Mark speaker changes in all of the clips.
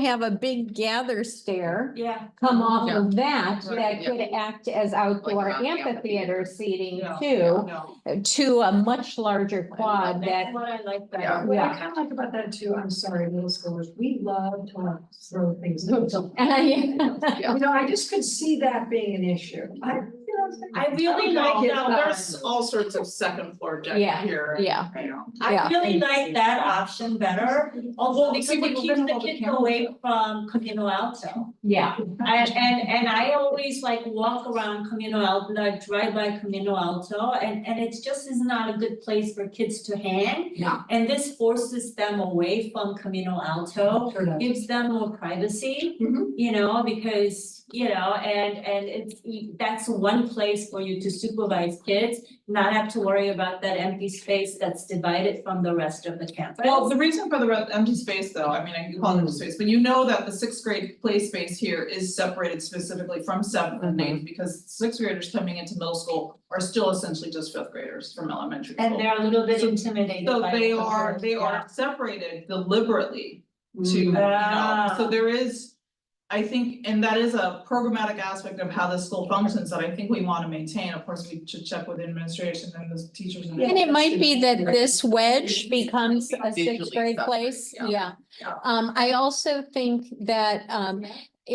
Speaker 1: have a big gather stair
Speaker 2: Yeah.
Speaker 1: come off of that,
Speaker 2: Yeah.
Speaker 1: that could act as outdoor
Speaker 3: Like an
Speaker 1: amphitheater seating
Speaker 2: No,
Speaker 1: too, to a much larger quad
Speaker 2: That's
Speaker 1: that,
Speaker 2: what I like
Speaker 3: Yeah.
Speaker 2: better.
Speaker 4: What I
Speaker 1: Yeah.
Speaker 4: kind of like about that too, I'm sorry, middle schoolers, we love to throw things. You know, I just could see that being an issue. I, you know,
Speaker 2: I really
Speaker 3: No,
Speaker 2: like
Speaker 3: no,
Speaker 2: that.
Speaker 3: there's all sorts of second floor deck
Speaker 1: Yeah,
Speaker 3: here.
Speaker 1: yeah.
Speaker 3: You know,
Speaker 1: Yeah.
Speaker 2: I really like that option better, although because
Speaker 3: See, we're
Speaker 2: it keeps
Speaker 3: gonna
Speaker 2: the
Speaker 3: hold the
Speaker 2: kids
Speaker 3: camera.
Speaker 2: away from Camino Alto.
Speaker 1: yeah,
Speaker 2: And and and I always like walk around Camino Alto, I drive by Camino Alto and and it's just is not a good place for kids to hang.
Speaker 1: No.
Speaker 2: And this forces them away from Camino Alto.
Speaker 4: Sure does.
Speaker 2: gives them more privacy.
Speaker 4: Mhm.
Speaker 2: You know, because, you know, and and it's, that's one place for you to supervise kids, not have to worry about that empty space that's divided from the rest of the campus.
Speaker 3: Well, the reason for the re- empty space though, I mean, I can call it empty space, but you know that the sixth grade play space here is separated specifically from seventh and eighth. Because sixth graders coming into middle school are still essentially just fifth graders from elementary school.
Speaker 2: And they're a little bit intimidated
Speaker 3: So
Speaker 2: by
Speaker 3: they
Speaker 2: the
Speaker 3: are,
Speaker 2: word,
Speaker 3: they
Speaker 2: yeah.
Speaker 3: are separated deliberately
Speaker 4: Mm.
Speaker 3: to, you know,
Speaker 2: Ah.
Speaker 3: so there is. I think, and that is a programmatic aspect of how the school functions that I think we wanna maintain, of course, we should check with the administration and the teachers and.
Speaker 1: And it might be that this wedge becomes a sixth grade place,
Speaker 3: yeah.
Speaker 1: yeah.
Speaker 3: Yeah.
Speaker 1: Um, I also think that, um,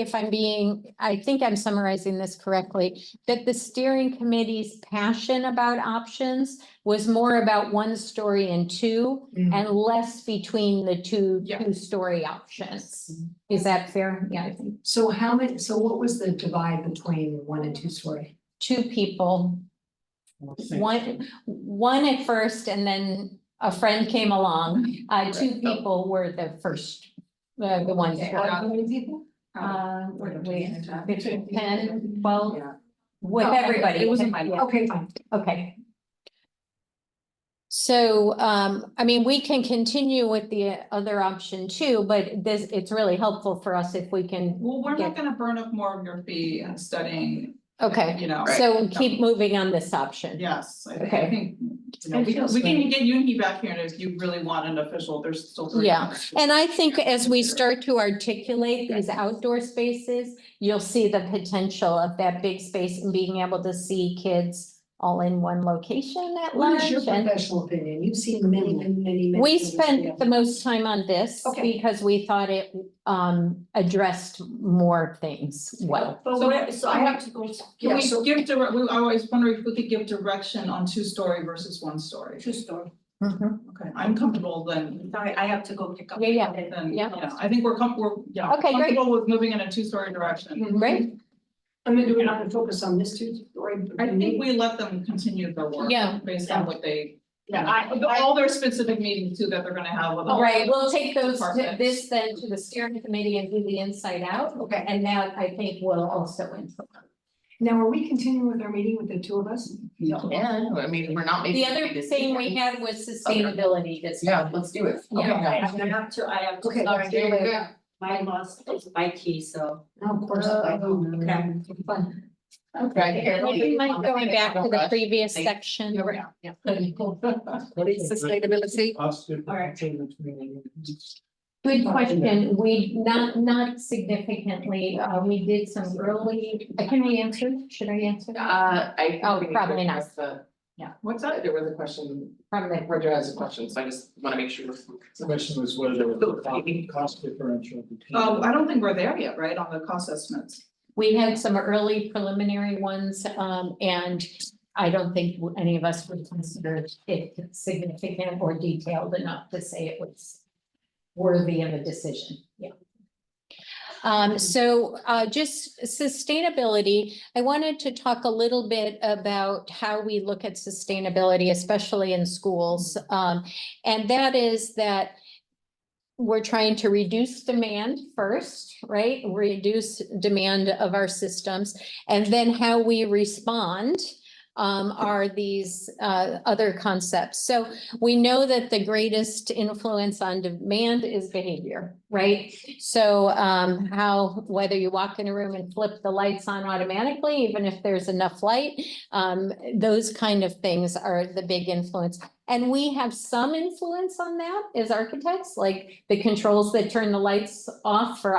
Speaker 1: if I'm being, I think I'm summarizing this correctly, that the steering committee's passion about options was more about one story and two,
Speaker 4: Mm.
Speaker 1: and less between the two,
Speaker 3: Yeah.
Speaker 1: two-story options.
Speaker 4: Mm-hmm.
Speaker 1: Is that fair? Yeah, I think
Speaker 4: So how many, so what was the divide between one and two story?
Speaker 1: two people, one, one at first and then a friend came along. Uh, two
Speaker 3: Right, so-
Speaker 1: people were the first, uh, the ones.
Speaker 4: Okay,
Speaker 1: who-
Speaker 4: How many people?
Speaker 1: Uh, wait,
Speaker 4: Fifteen.
Speaker 1: ten, twelve,
Speaker 4: Yeah.
Speaker 1: with
Speaker 4: Oh, okay,
Speaker 1: everybody.
Speaker 4: it was in
Speaker 1: Yeah.
Speaker 4: Okay, fine.
Speaker 1: Okay. So, um, I mean, we can continue with the other option too, but this, it's really helpful for us if we can,
Speaker 3: Well, we're
Speaker 1: Yeah.
Speaker 3: not gonna burn up more of your fee and studying,
Speaker 1: okay.
Speaker 3: you know,
Speaker 1: So keep moving on this option.
Speaker 3: yes, I think, I
Speaker 1: Okay.
Speaker 3: think. You know, we can, we can get you and he back here and if you really want an official, there's still. three
Speaker 1: Yeah.
Speaker 3: others.
Speaker 1: And I think as we start to articulate these outdoor spaces, you'll see the potential of that big space and being able to see kids all in one location at
Speaker 4: What
Speaker 1: lunch.
Speaker 4: is your
Speaker 1: and-
Speaker 4: professional opinion? You've seen many, many, many, many.
Speaker 1: We
Speaker 4: things, yeah.
Speaker 1: spent the most time on this
Speaker 4: Okay.
Speaker 1: because we thought it um addressed more things well.
Speaker 2: But
Speaker 3: So-
Speaker 2: where, so I have to go
Speaker 3: Can
Speaker 4: Yeah,
Speaker 3: we
Speaker 4: so-
Speaker 3: give direct, we, I always wonder if we could give direction on two story versus one story.
Speaker 2: to store.
Speaker 4: Mm-hmm.
Speaker 3: Okay, I'm comfortable then,
Speaker 2: Sorry, I have to go pick up.
Speaker 1: Yeah, yeah.
Speaker 2: Okay.
Speaker 3: then,
Speaker 1: Yeah.
Speaker 3: yeah, I think we're com- we're, yeah,
Speaker 1: Okay, great.
Speaker 3: comfortable with moving in a two story direction.
Speaker 1: Right?
Speaker 4: I mean, do we not focus on this two story?
Speaker 3: I think we let them continue their work.
Speaker 1: Yeah.
Speaker 3: Based on what they,
Speaker 4: Yeah, I,
Speaker 3: all their specific meetings too that they're gonna have with. all-
Speaker 1: All right, we'll take those,
Speaker 3: Perfect.
Speaker 1: this then to the steering committee and do the inside out.
Speaker 4: Okay.
Speaker 1: And that I think will also influence.
Speaker 4: now are we continuing with our meeting with the two of us?
Speaker 5: Yeah, I mean, we're not making.
Speaker 1: The other thing we had was sustainability this.
Speaker 5: Yeah, let's do it.
Speaker 1: Yeah.
Speaker 2: I have to, I have to.
Speaker 4: Okay,
Speaker 2: sorry,
Speaker 4: see you later.
Speaker 2: My loss is my key, so.
Speaker 4: No, of course. I don't. Fun.
Speaker 5: Okay.
Speaker 1: Maybe mind going back to the previous
Speaker 5: Thank-
Speaker 1: section.
Speaker 5: You're right. Yeah.
Speaker 2: All right.
Speaker 1: Good question. We, not, not significantly, uh, we did some early, uh, can we answer? Should I answer?
Speaker 5: Uh, I.
Speaker 1: Oh, probably not.
Speaker 5: The-
Speaker 3: What's that?
Speaker 5: There was a question,
Speaker 1: From the
Speaker 5: Roger has a question, so I just wanna make sure.
Speaker 6: The question was whether there was a co- cost differential between.
Speaker 2: Um,
Speaker 3: Oh, I don't think we're there yet, right, on the cost estimates?
Speaker 1: We had some early preliminary ones, um, and I don't think any of us would consider it significant or detailed enough to say it was worthy of a decision, yeah. Um, so, uh, just sustainability, I wanted to talk a little bit about how we look at sustainability, especially in schools. Um, and that is that we're trying to reduce demand first, right? Reduce demand of our systems. And then how we respond um, are these uh, other concepts. So we know that the greatest influence on demand is behavior, right? So um, how, whether you walk in a room and flip the lights on automatically, even if there's enough light, um, those kind of things are the big influence. And we have some influence on that as architects, like the controls that turn the lights off for